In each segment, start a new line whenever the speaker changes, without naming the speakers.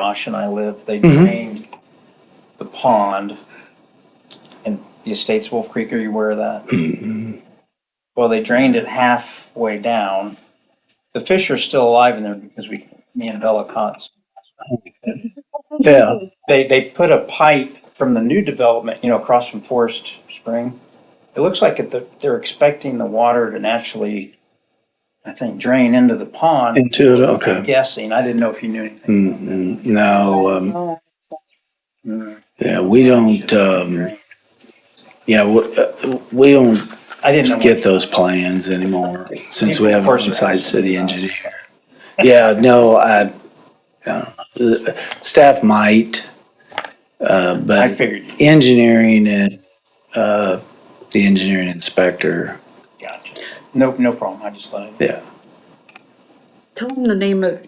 Josh and I live, they
Mm-hmm.
drained the pond and the estate's Wolf Creek, are you aware of that?
Mm-hmm.
Well, they drained it halfway down. The fish are still alive in there because we, me and Bella caught. some.
Yeah.
They, they put a pipe from the new development, you know, across from Forest Spring. It looks like it, they're expecting the water to naturally, I think, drain into the pond.
Into it.
I'm
Okay.
guessing. I didn't know if you knew anything.
mm No. Um,
Oh,
yeah, we don't. Um, yeah, we, uh, we don't
I didn't know.
get those plans anymore since we have an
Force
inside
ranks.
city engineer. Yeah, no, I, I don't know. Staff might, uh,
I
but
figured.
engineering and, uh, the engineering inspector,
Gotcha. No, no problem. I just let it.
yeah.
Tell them the name of,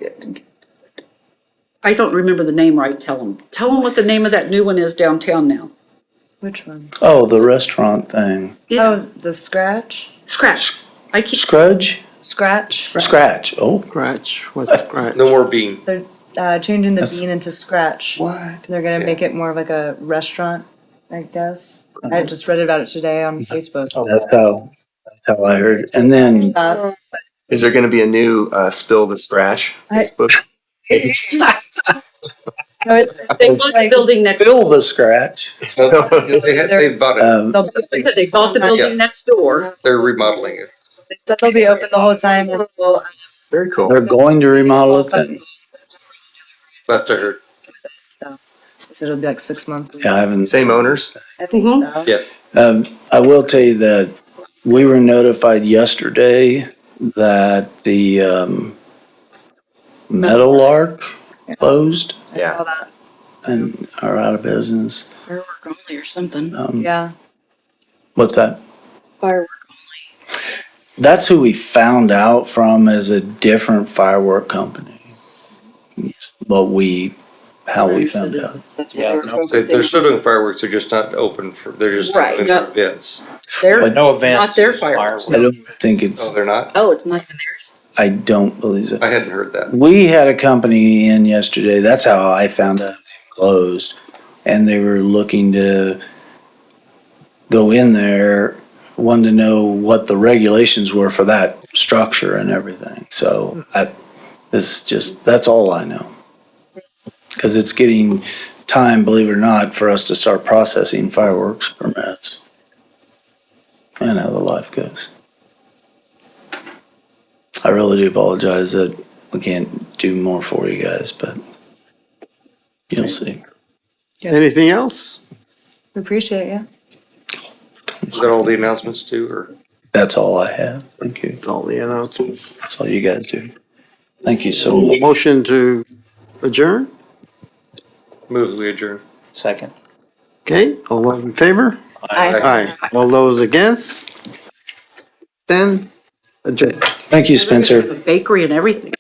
I don't remember the name right, tell them. Tell them what the name of that new one is downtown now.
Which one?
Oh, the restaurant thing.
Oh, the scratch?
Scratch. I keep,
Scrudge?
Scratch?
Scratch. Oh,
Scratch, what's scratch?
No more bean.
They're uh, changing the
That's-
bean into scratch.
what?
They're gonna make it more of like a restaurant, I guess. I just read about it today on Facebook.
Uh-huh. That's how, that's how I heard. And then,
Uh,
Is there going to be a new uh, spill the scratch?
I-
Facebook?
no, it-
they bought the building next,
fill the scratch.
They had, they bought it.
Um,
They'll
they said they bought the building next door.
They're remodeling it.
they said they'll be open the whole time. and we'll-
Very cool.
they're going to remodel it then.
Last I heard.
So they said it'll be like six months.
Yeah, I haven't.
Same owners.
I think
Mhm.
so.
Yes.
Um, I will tell you that we were notified yesterday that the, um, Meadowlark closed
I
Yeah.
saw that.
and are out of business.
Firework only or something.
Um,
Yeah.
what's that?
Firework.
That's who we found out from as a different firework company. But we, how we found out.
That's
Yeah,
what we're
no,
focusing
They-
on.
They're still doing fireworks, they're just not open for, they're just.
Right,
open
yeah.
for Events.
They're,
But no event.
Not their fireworks.
I don't think
Oh,
it's,
they're not?
Oh, it's not even theirs?
I don't believe it.
I hadn't heard that.
We had a company in yesterday. That's how I found out it closed, and they were looking to go in there. Wanted to know what the regulations were for that structure and everything. So I, this is just that's all I know. Because it's getting time, believe it or not, for us to start processing fireworks permits. And how the life goes. I really do apologize that we can't do more for you guys, but you'll see.
Anything else?
We appreciate you.
Is that all the announcements too, or?
That's all I have. Thank you.
That's all the announcements.
That's all you guys do. Thank you so much.
Motion to adjourn,
Move, we adjourn.
Second.
okay? All those in favor? Aye. All those against? Then adjourn.
Thank you,
they're gonna
Spencer.
have a bakery and everything.